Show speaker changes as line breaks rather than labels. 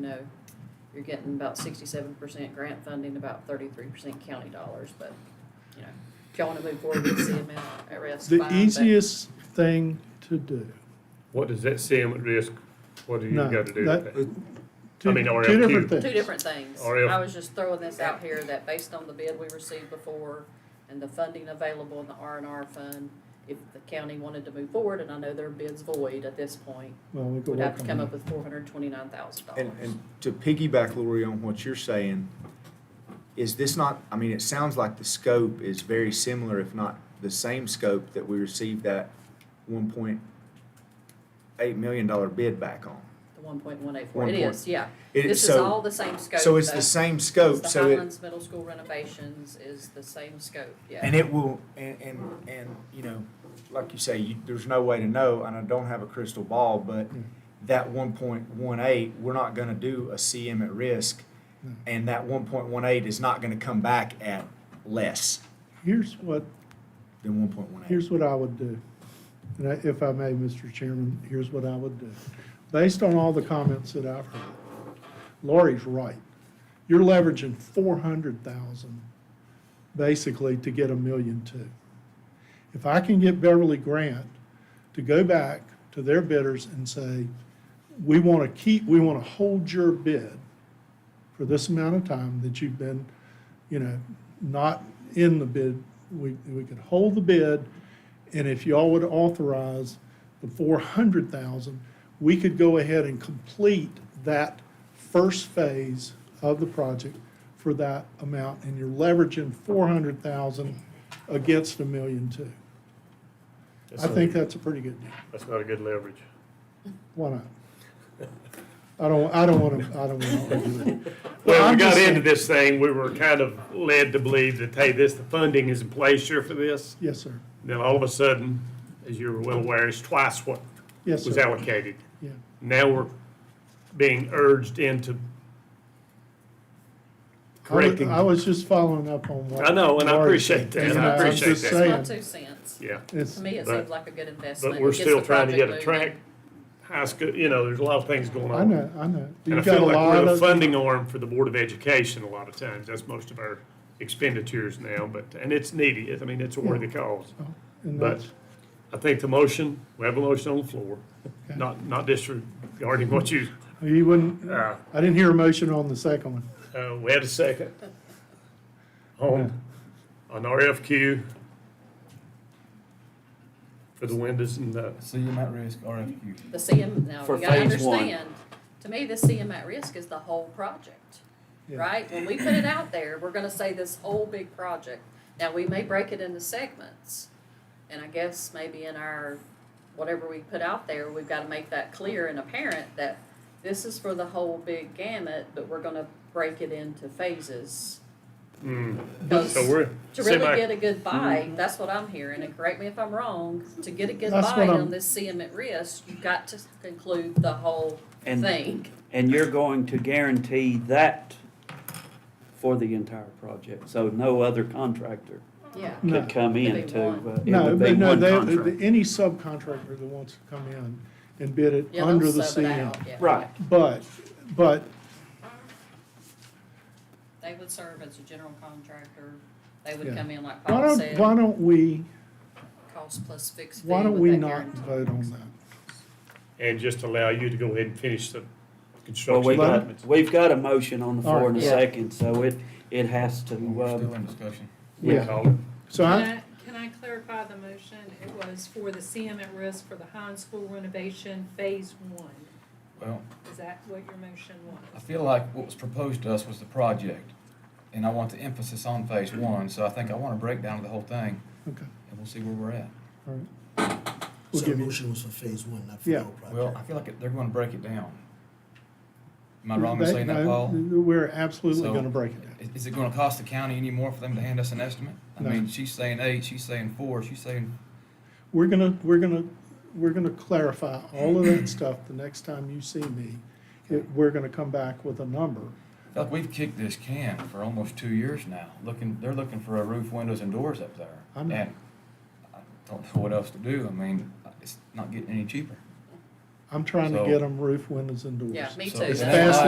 know, you're getting about sixty-seven percent grant funding, about thirty-three percent county dollars, but, you know, if y'all wanna move forward with CML at risk, fine.
The
but-
easiest thing to do.
What does that see them at risk? What do you
No,
got to do
that-
with that?
Two-
I mean, or
Two
LQ.
different things.
Two different things.
Or if-
I was just throwing this out here that based on the bid we received before and the funding available in the R and R fund, if the county wanted to move forward, and I know their bid's void at this point,
Well, we could
would have
work
to
on
come up
that.
with four hundred twenty-nine thousand
And,
dollars.
and to piggyback, Lori, on what you're saying, is this not, I mean, it sounds like the scope is very similar, if not the same scope that we received that one point eight million dollar bid back on.
The one point one eight four,
One
it
point-
is, yeah.
It-
This is
so-
all the same scope.
So it's
though.
the same
It's
scope,
The
so it,
Highlands Middle School renovations is the same scope, yeah.
and it will, and, and, and, you know, like you say, you, there's no way to know, and I don't have a crystal ball, but
Mm.
that one point one eight, we're not gonna do a CM at risk,
No.
Mm.
and that one point one eight is not gonna come back at less.
Here's what,
than one point one eight.
here's what I would do. And I- if I may, Mr. Chairman, here's what I would do. Based on all the comments that I've heard, Lori's right. You're leveraging four hundred thousand basically to get a million two. If I can get Beverly Grant to go back to their bidders and say, we want to keep, we want to hold your bid for this amount of time that you've been, you know, not in the bid, we, we could hold the bid, and if y'all would authorize the four hundred thousand, we could go ahead and complete that first phase of the project for that amount, and you're leveraging four hundred thousand against a million two. I think that's a pretty good deal.
That's not a good leverage.
Why not? I don't, I don't want to, I don't want to argue that.
Well,
I'm
we
just
got into
saying-
this thing, we were kind of led to believe that, hey, this, the funding is in place here for this.
Yes, sir.
Then all of a sudden, as you're well aware, it's twice what
Yes, sir.
was allocated.
Yeah,
Now we're being urged into correcting.
I was just following up on what.
I know, and I
Laurie said,
appreciate that,
and
I
I'm
appreciate
just
that.
It's my
saying,
two cents.
Yeah,
it's-
To me, it
But-
seems like a good investment.
but we're
It gets
still
the
trying to get a
project
track,
moving.
high school, you know, there's a lot of things going on.
I know, I know.
And I
You've got a
feel like we're
lot
the
of,
funding arm for the Board of Education a lot of times. That's most of our expenditures now, but, and it's needy. It- I mean, it's a worthy cause.
and
but-
that's-
I think the motion, we have a motion on the floor,
Okay.
not, not disregarding what you,
you wouldn't,
uh,
I didn't hear a motion on the second one.
uh, we had a second on, on RFQ for the windows and the,
So you're at risk RFQ.
The CM, now,
For
you gotta
phase one.
understand, to me, the CM at risk is the whole project,
Yeah.
right? When we put it out there, we're gonna say this whole big project. Now, we may break it into segments, and I guess maybe in our, whatever we put out there, we've gotta make that clear and apparent that this is for the whole big gamut, but we're gonna break it into phases.
mm,
Because
so we're
to really
semi,
get a good
Mm-hmm.
buy, that's what I'm hearing, and correct me if I'm wrong, to get a good
That's
buy
what I'm-
on this CM at risk, you've got to conclude the whole
And,
thing.
and you're going to guarantee that for the entire project, so no other contractor
Yeah.
No.
could come
It'd be
in to,
one.
uh, it
No,
would be
but no,
one
they,
contract.
any subcontractor that wants to come in and bid it
Yeah,
under
they'll
the
sub it out,
CM.
yeah.
Right,
But, but
They would serve as a general contractor, they
Yeah.
would come in like
why
Paul
don't,
said,
why don't we,
cost plus fixed fee
why don't
with
we
that
not
guarantee.
vote on that?
and just allow you to go ahead and finish the
well, we
construction.
got,
documents.
we've got a motion on the floor in a
Yeah.
second, so it, it has to,
We're still
uh,
in discussion.
We
Yeah,
call it.
so I,
Can I- Can I clarify the motion? It was for the CM at risk for the Hines School renovation, phase one.
Well,
Is that what your motion
I
was?
feel like what was proposed to us was the project, and I want the emphasis on phase one, so I think I want a breakdown of the whole thing,
okay,
and we'll see where we're at.
all right. We'll
So the
give you,
motion was for phase one, not for
Yeah.
the whole project?
Well, I feel like they're gonna break it down. Am I wrong in saying
They-
that,
no,
Paul?
We're absolutely
So-
gonna break it down.
Is, is it gonna cost the county any more for them to hand us an estimate? I
No.
mean, she's saying eight, she's saying four, she's saying,
We're gonna, we're gonna, we're gonna clarify all of that stuff the next time you see me. It- We're gonna come back with a number.
I feel like we've kicked this can for almost two years now, looking, they're looking for a roof, windows, and doors up there.
I know.
And I don't know what else to do, I mean, it's not getting any cheaper.
I'm trying to
So-
get them roof windows and doors.
Yeah, me
So
too.
it's
That's-
fast